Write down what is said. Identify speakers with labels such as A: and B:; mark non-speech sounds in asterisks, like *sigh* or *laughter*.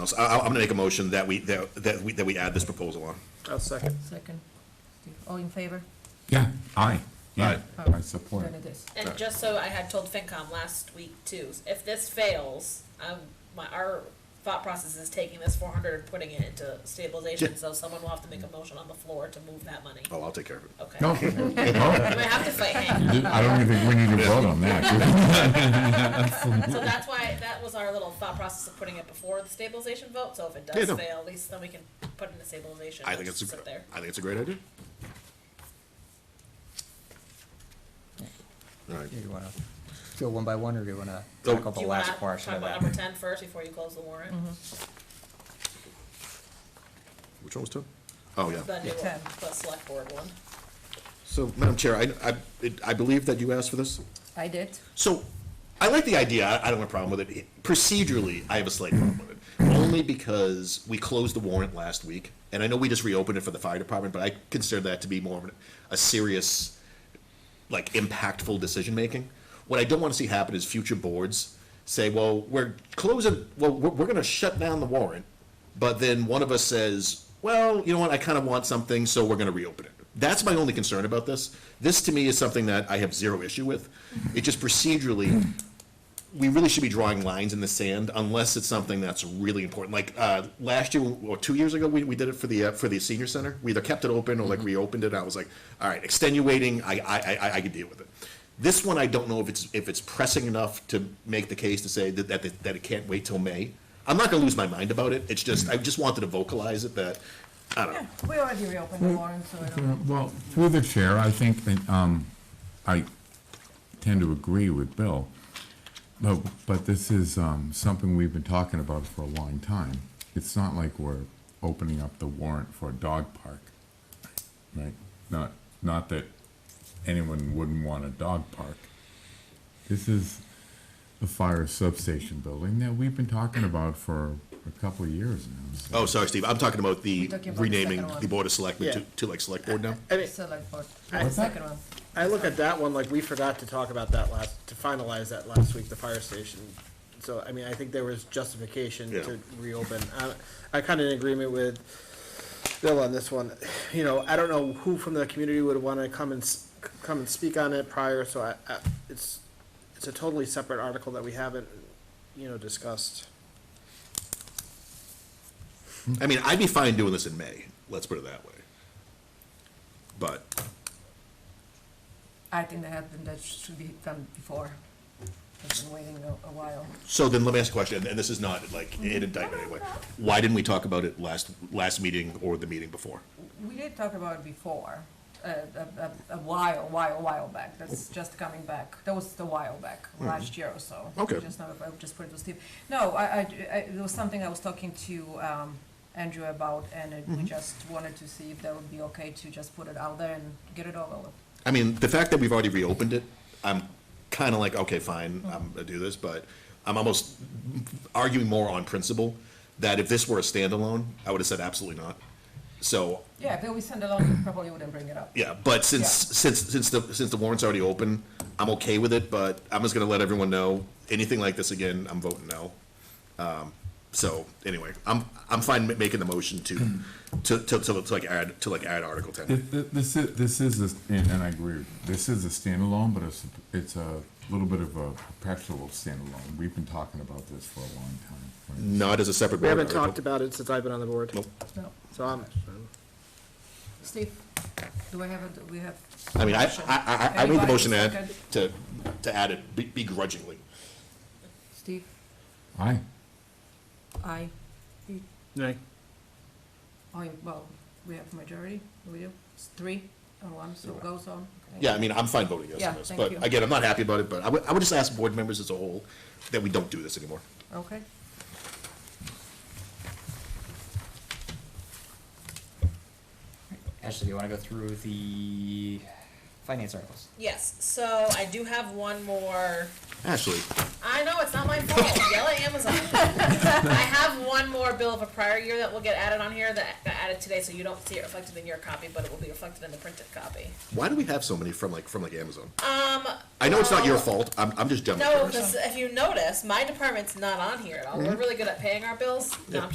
A: else. I, I'm gonna make a motion that we, that, that we, that we add this proposal on.
B: I'll second.
C: Second. Steve. All in favor?
D: Yeah, aye, yeah,
C: Oh,
D: I support.
C: None of this.
E: And just so I had told FinCom last week too, if this fails, um, my, our thought process is taking this four hundred and putting it into stabilization,
A: Yeah.
E: so someone will have to make a motion on the floor to move that money.
A: Oh, I'll take care of it.
E: Okay.
D: No, no,
E: We have to fight, hang
D: *laughs*
E: on.
D: I don't even think we need to vote on *laughs* that.
E: So that's why, that was our little thought process of putting it before the stabilization vote, so if it
A: Yeah,
E: does
A: no.
E: fail, at least then we can put it in the stabilization.
A: I
E: and
A: think it's,
E: just
A: a-
E: sit there.
A: I think it's a great idea. All right.
F: You wanna go one by one, or do you wanna
A: Go-
F: tackle
E: Do
F: the
E: you
F: last
E: wanna
F: portion
E: talk
F: of
E: about
F: that?
E: number ten first before you close the warrant?
A: Which one was two? Oh, yeah.
E: The new one,
C: 10.
E: the select board one.
A: So, Madam Chair, I, I, it- I believe that you asked for this?
C: I did.
A: So, I like the idea, I I don't have a problem with it. Procedurally, I have a slight problem with it. Only because we closed the warrant last week, and I know we just reopened it for the fire department, but I consider that to be more of an- a serious, like, impactful decision-making. What I don't want to see happen is future boards say, well, we're closing, well, we're, we're gonna shut down the warrant, but then one of us says, well, you know what, I kind of want something, so we're gonna reopen it. That's my only concern about this. This, to me, is something that I have zero issue with. It just procedurally, we really should be drawing lines in the sand unless it's something that's really important. Like, uh, last year, or two years ago, we, we did it for the, uh, for the senior center. We either kept it open or
C: Mm-hmm.
A: like reopened it. I was like, all right, extenuating, I, I, I- I, I could deal with it. This one, I don't know if it's, if it's pressing enough to make the case to say that, that, it- that it can't wait till May. I'm not gonna lose my mind about it. It's just, I just wanted to vocalize it that, I don't know.
C: We already reopened
B: Hmm.
C: the warrant, so I don't.
D: Well, through the chair, I think that, um, I tend to agree with Bill. But, but this is, um, something we've been talking about for a long time. It's not like we're opening up the warrant for a dog park, right? Not, not that anyone wouldn't want a dog park. This is the fire substation building that we've been talking about for a couple of years now, so.
A: Oh, sorry, Steve, I'm talking about the
C: talking about the
A: renaming
C: second one.
A: the board of selectmen to,
B: Yeah.
A: to like select board now.
B: I mean,
C: Select board.
B: I-
C: The second one.
B: I look at that one, like, we forgot to talk about that last, to finalize that last week, the fire station. So, I mean, I think there was justification
A: Yeah.
B: to reopen. I, I kinda in agreement with Bill on this one. You know, I don't know who from the community would wanna come and, s- come and speak on it prior, so I, I, it's, it's a totally separate article that we haven't, you know, discussed.
C: Mm-hmm.
A: I mean, I'd be fine doing this in May, let's put it that way. But,
C: I think that happened, that should be done before. I've been waiting a, a while.
A: so then let me ask a question, and this is not like an indictment anyway. Why didn't we talk about it last, last meeting or the meeting before?
C: We did talk about it before, uh, a, a, a while, while, while back, that's just coming back, that was the while back, last year or so.
A: Okay.
C: Just now, I just put it to Steve. No, I, I, I- there was something I was talking to, um, Andrew about, and it-
A: Mm-hmm.
C: we just wanted to see if that would be okay to just put it out there and get it over with.
A: I mean, the fact that we've already reopened it, I'm kind of like, okay, fine, I'm gonna do this, but I'm almost arguing more on principle that if this were a standalone, I would have said absolutely not. So,
C: Yeah, if it was standalone, you probably wouldn't bring it up.
A: Yeah, but since,
C: Yeah.
A: since, since the, since the warrant's already open, I'm okay with it, but I'm just gonna let everyone know, anything like this again, I'm voting no. Um, so, anyway, I'm, I'm fine ma- making the motion to,
C: Hmm.
A: to, to, to to like add, to like add Article
D: Thi-
A: ten.
D: thi- This is, this is, a- and and I agree, with you. this is a standalone, but it's, it's a little bit of a perpetual standalone. We've been talking about this for a long time. right?
A: Not as a separate
B: We
A: warrant
B: haven't talked
A: article.
B: about it since I've been on the board,
A: Nope.
C: No.
B: so I'm,
C: Steve, do I have, a do we have?
A: I mean, I,
C: motion?
A: I, I, I made the
C: Anybody
A: motion to add,
C: second?
A: to, to add it be- begrudgingly.
C: Steve,
D: Aye,
C: I,
B: Nay.
C: I, Oh, well, we have majority, we do, it's three and one, so it goes on.
A: Yeah, I mean, I'm fine voting yes
C: Yeah,
A: on this,
C: thank you.
A: but again, I'm not happy about it, but I would, I would just ask board members as a whole that we don't do this anymore.
C: Okay.
F: Ashley, do you wanna go through the finance articles?
E: Yes, so I do have one more.
A: Ashley,
E: I know, it's not my fault. Yell at Amazon. I have one more bill of a prior year that will get added on here that got added today, so you don't see it reflected in your copy, but it will be reflected in the printed copy.
A: why do we have so many from like, from like Amazon?
E: Um,
A: I know it's not your fault. I'm, I'm just dumb.
E: no, because if you notice, my department's not on here at all. We're really good at paying our bills. No, I'm